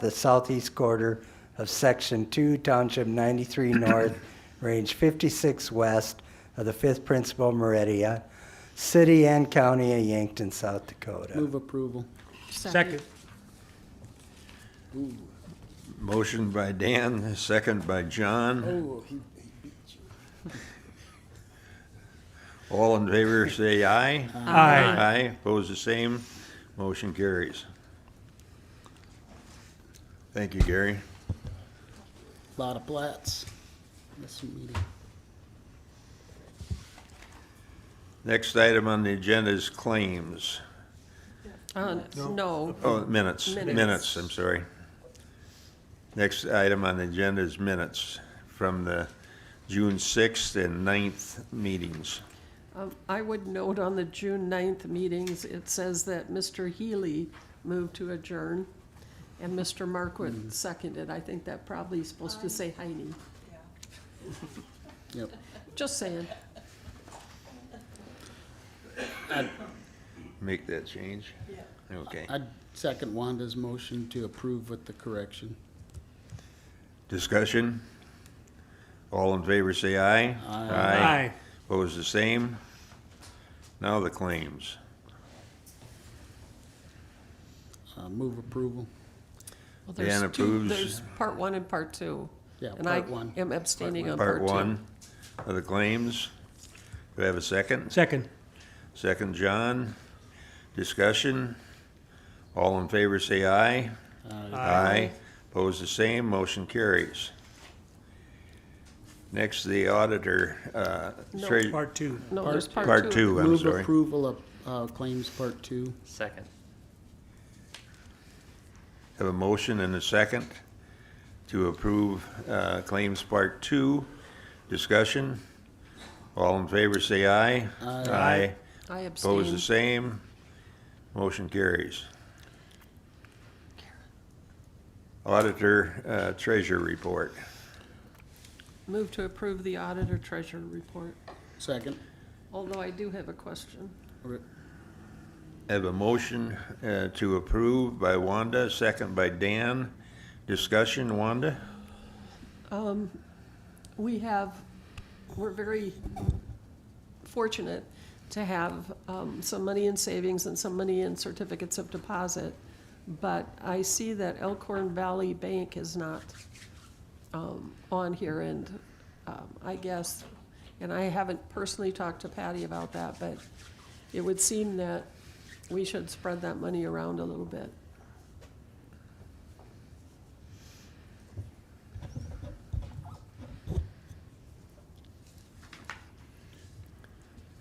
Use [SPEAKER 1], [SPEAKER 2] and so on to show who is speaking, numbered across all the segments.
[SPEAKER 1] the southeast quarter of Section 2, Township 93 North, Range 56 West of the 5th Principal Meridian, city and county of Yankton, South Dakota.
[SPEAKER 2] Move approval.
[SPEAKER 3] Second.
[SPEAKER 4] Motion by Dan, second by John.
[SPEAKER 2] Oh, he,
[SPEAKER 4] All in favor, say aye.
[SPEAKER 3] Aye.
[SPEAKER 4] Aye, pose the same, motion carries. Thank you, Gary.
[SPEAKER 2] lot of plats. This meeting.
[SPEAKER 4] Next item on the agenda is claims.
[SPEAKER 3] Uh, No,
[SPEAKER 4] Oh, minutes,
[SPEAKER 3] Minutes.
[SPEAKER 4] minutes, I'm sorry. Next item on the agenda is minutes from the June 6th and 9th meetings.
[SPEAKER 3] Um, I would note on the June 9th meetings, it says that Mr. Healy moved to adjourn, and Mr. Markwood seconded. I think that probably is supposed to say Heine.
[SPEAKER 2] Yep.
[SPEAKER 3] Just saying.
[SPEAKER 4] Make that change? Okay.
[SPEAKER 2] I'd second Wanda's motion to approve with the correction.
[SPEAKER 4] Discussion? All in favor, say aye.
[SPEAKER 3] Aye.
[SPEAKER 4] Pose the same. Now the claims.
[SPEAKER 2] Uh, move approval.
[SPEAKER 3] Well, there's
[SPEAKER 4] Dan
[SPEAKER 3] two-
[SPEAKER 4] approves.
[SPEAKER 3] There's part one and part two.
[SPEAKER 2] Yeah, part one.
[SPEAKER 3] And I am abstaining on part
[SPEAKER 4] Part
[SPEAKER 3] two.
[SPEAKER 4] one of the claims. Do I have a second?
[SPEAKER 5] Second.
[SPEAKER 4] Second, John. Discussion? All in favor, say aye. Aye. Pose the same, motion carries. Next, the auditor, uh,
[SPEAKER 3] No.
[SPEAKER 4] treasurer-
[SPEAKER 5] Part two.
[SPEAKER 3] No, there's part two.
[SPEAKER 4] part two, I'm
[SPEAKER 2] Move
[SPEAKER 4] sorry.
[SPEAKER 2] approval of, uh, claims part two.
[SPEAKER 6] Second.
[SPEAKER 4] Have a motion and a second to approve uh, claims part two. Discussion. All in favor, say aye. Aye.
[SPEAKER 3] I
[SPEAKER 4] Opposed, the
[SPEAKER 3] abstain.
[SPEAKER 4] same. Motion carries. Auditor uh, Treasurer Report.
[SPEAKER 3] Move to approve the auditor treasurer report,
[SPEAKER 2] Second.
[SPEAKER 3] although I do have a question.
[SPEAKER 2] Re-
[SPEAKER 4] Have a motion uh, to approve by Wanda, second by Dan. Discussion, Wanda?
[SPEAKER 3] we have, we're very fortunate to have um, some money in savings and some money in certificates of deposit, but I see that Elkhorn Valley Bank is not um, on here, and um, I guess, and I haven't personally talked to Patty about that, but it would seem that we should spread that money around a little bit.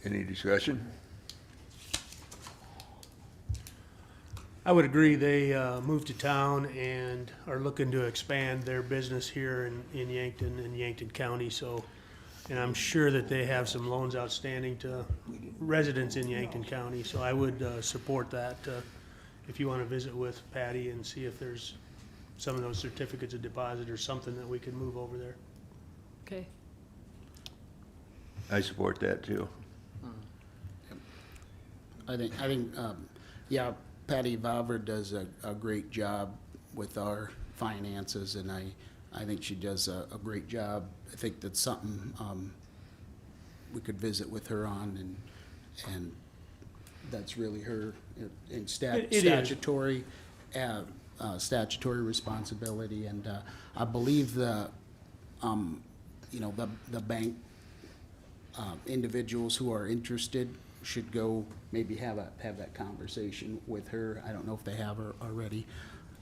[SPEAKER 4] Any discussion?
[SPEAKER 5] I would agree, they uh, moved to town and are looking to expand their business here in, in Yankton and Yankton County, so, and I'm sure that they have some loans outstanding to residents in Yankton County, so I would uh, support that. uh, If you want to visit with Patty and see if there's some of those certificates of deposit or something that we could move over there.
[SPEAKER 3] Okay?
[SPEAKER 4] I support that, too.
[SPEAKER 2] I think, I think, um, yeah, Patty Valver does a, a great job with our finances, and I, I think she does a, a great job. I think that's something, um, we could visit with her on, and, and that's really her, in
[SPEAKER 5] It-
[SPEAKER 2] stat,
[SPEAKER 5] it is.
[SPEAKER 2] statutory, uh, uh, statutory responsibility, and, uh, I believe the, um, you know, the, the bank um, individuals who are interested should go maybe have a, have that conversation with her. I don't know if they have her already.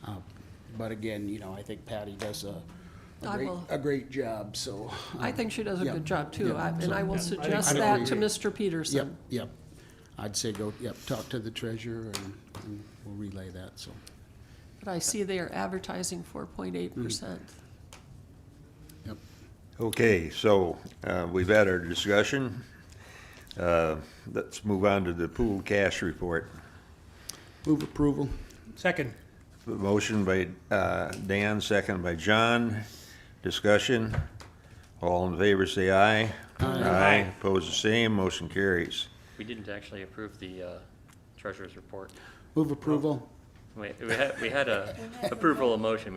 [SPEAKER 2] Uh, But again, you know, I think Patty does a, a
[SPEAKER 3] I
[SPEAKER 2] great,
[SPEAKER 3] will-
[SPEAKER 2] a great job, so.
[SPEAKER 3] I think she does a
[SPEAKER 2] yeah,
[SPEAKER 3] good job, too,
[SPEAKER 2] yeah,
[SPEAKER 3] I- and
[SPEAKER 2] so-
[SPEAKER 3] I will suggest
[SPEAKER 2] I
[SPEAKER 3] that to
[SPEAKER 2] agree.
[SPEAKER 3] Mr.
[SPEAKER 2] Yep,
[SPEAKER 3] Peterson.
[SPEAKER 2] yep. I'd say go, yep, talk to the treasurer and and we'll relay that, so.
[SPEAKER 3] But I see they are advertising four point eight percent.
[SPEAKER 2] Yep.
[SPEAKER 4] Okay, so uh, we've had our discussion. Uh, Let's move on to the pool cash report.
[SPEAKER 2] Move approval.
[SPEAKER 5] Second.
[SPEAKER 4] Motion by uh, Dan, second by John. Discussion. All in favor, say aye. Aye. Opposed, the same. Motion carries.
[SPEAKER 6] We didn't actually approve the uh, treasurer's report.
[SPEAKER 2] Move approval.
[SPEAKER 6] Wait, we had, we had a approval of motion.